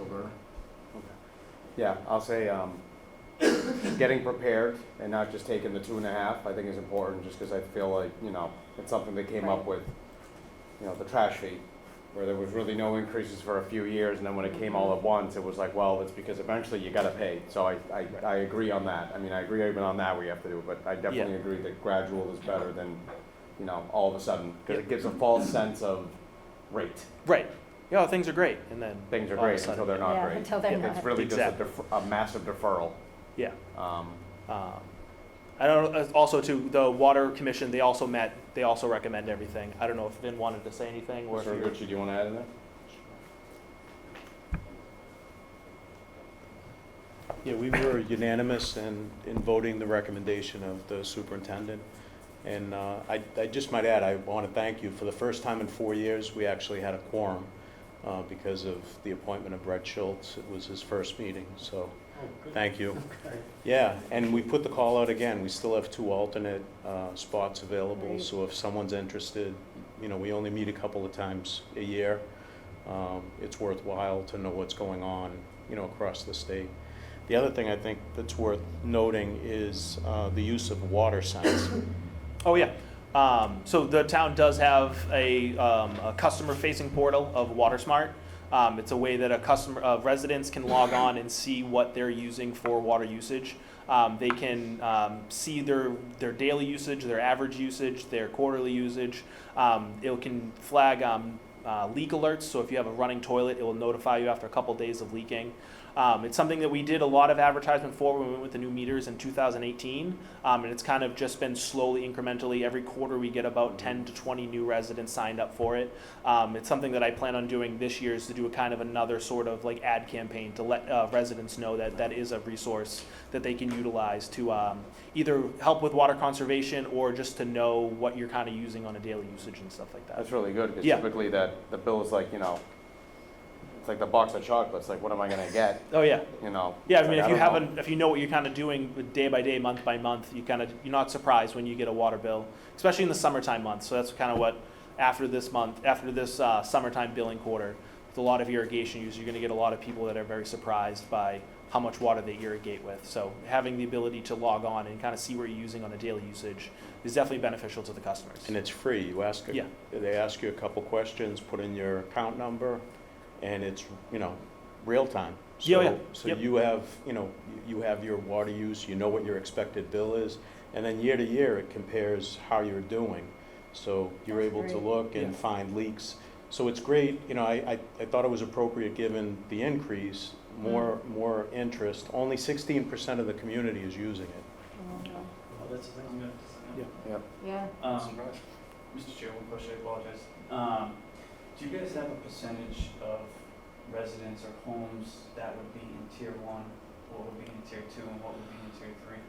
over. Yeah, I'll say, um, getting prepared and not just taking the two and a half, I think is important, just because I feel like, you know, it's something they came up Right. with, you know, the trash fee, where there was really no increases for a few years, and then when it came all at once, it was like, well, it's because eventually you gotta pay, so I, I, I agree on that. I mean, I agree even on that we have to do, it, but I definitely agree that gradual is better than, you know, all of a sudden, because it gives a false sense of rate. Right. Yeah, things are great, and then Things are all of a great sudden- until they're not Yeah, great. until they're Yeah, not. It's really just a Exactly. def- a massive deferral. Yeah. Um, Um, I don't. uh, Also, to the water commission, they also met. They also recommend everything. I don't know if Vin wanted to say anything or if Mr. you're, Gucci, do you want to add in there? Yeah, we were unanimous in, in voting the recommendation of the superintendent. And uh, I, I just might add, I want to thank you. For the first time in four years, we actually had a quorum uh, because of the appointment of Brett Schultz. It was his first meeting, so Oh, thank you. Yeah, and we put the call out again. We still have two alternate uh, spots available. Right. So if someone's interested, you know, we only meet a couple of times a year. Um, It's worthwhile to know what's going on, you know, across the state. The other thing I think that's worth noting is uh, the use of water signs. Oh yeah. Um, so the town does have a, um, a customer-facing portal of WaterSmart. Um, it's a way that a customer, uh, residents can log on and see what they're using for water usage. Um, they can um, see their their daily usage, their average usage, their quarterly usage. Um, it can flag um, uh, leak alerts. So if you have a running toilet, it will notify you after a couple days of leaking. Um, it's something that we did a lot of advertisement for when we went with the new meters in 2018, um, and it's kind of just been slowly, incrementally. Every quarter, we get about 10 to 20 new residents signed up for it. Um, it's something that I plan on doing this year is to do a kind of another sort of like ad campaign to let uh, residents know that that is a resource that they can utilize to um, either help with water conservation or just to know what you're kind of using on a daily usage and stuff like that. That's really good, because Yeah. typically that, the bill is like, you know, it's like the box of chocolates, like, what am I going to get, Oh yeah. you know? Yeah, It's I mean, like, if you don't know. haven't, if you know what you're kind of doing with day by day, month by month, you kind of you're not surprised when you get a water bill, especially in the summertime months. So that's kind of what after this month, after this uh, summertime billing quarter, with a lot of irrigation use, you're going to get a lot of people that are very surprised by how much water they irrigate with. So having the ability to log on and kind of see what you're using on a daily usage is definitely beneficial to the customers. And it's free. You ask, a- Yeah. they ask you a couple questions, put in your account number, and it's, you know, real time. Yeah, oh, So- yeah. So Yep. you have, you know, you have your water use, you know what your expected bill is, and then year to year, it compares how you're doing. So you're That's able to great. look and Yeah. find leaks. So it's great, you know, I, I, I thought it was appropriate, given the increase, Mm. more, more interest. Only sixteen percent of the community is using it. Mhm. Oh, that's the thing I'm gonna. Yeah. Yeah. Um, Mr. Chair, one question, I apologize. Um, do you guys have a percentage of residents or homes that would be in tier one? What would be in tier two and what would be in tier three?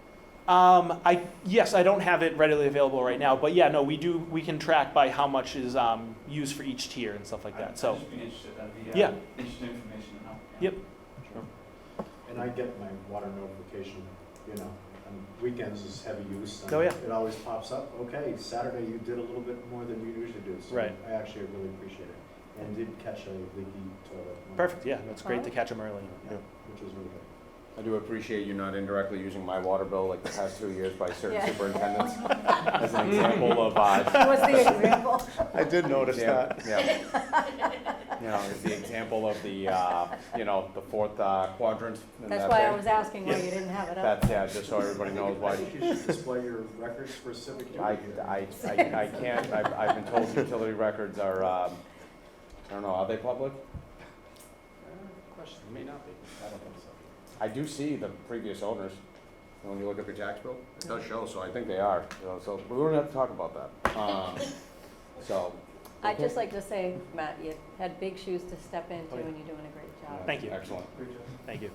Um, I yes, I don't have it readily available right now, but yeah, no, we do. We can track by how much is um, used for each tier and stuff like I'd- that. So I'd just be interested, that'd be, Yeah. uh, interesting information to know. Yep. And I get my water notification, you know, on weekends is heavy use. and Oh, yeah. It always pops up, okay, Saturday you did a little bit more than you usually do. so Right. I actually really appreciate it, and did catch a leaky toilet. one, perfect. Yeah, that's great to catch them early. Yeah, Which is really good. I do appreciate you not indirectly using my water bill like the past two years by certain Yeah. superintendents as an example of, uh, What's the example? I did notice yeah, yeah. You know, it's the example of the, uh, you know, the fourth uh, quadrant in That's that why I thing. was asking why you didn't have it up. That's, yeah, just so everybody knows why I think you should display your records for civic I, duty. I, I, I can't, I've, I've been told utility records are, um, I don't know, are they public? Question, may not be. I don't think so. I do see the previous owners, and when you look up your tax bill, it does show, so I think they are, you know, so we don't have to talk about that. Um, So. I'd just like to say, Matt, you had big shoes to step into and you're doing a great job. Thank you. Excellent. Great job. Thank you.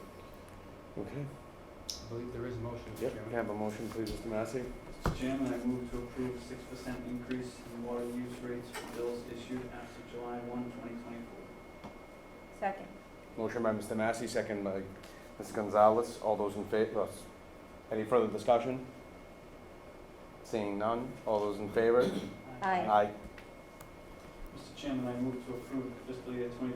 Okay. I believe there is a motion, Mr. Yep, Chairman. can I have a motion, please, Mr. Massey? Mr. Chairman, I move to approve six percent increase in water use rates for bills issued after July one, twenty twenty-four. Second. Motion by Mr. Massey, second by Ms. Gonzalez. All those in favor, any further discussion? Seeing none, all those in favor? Aye. Aye. Mr. Chairman, I move to approve the fiscal year twenty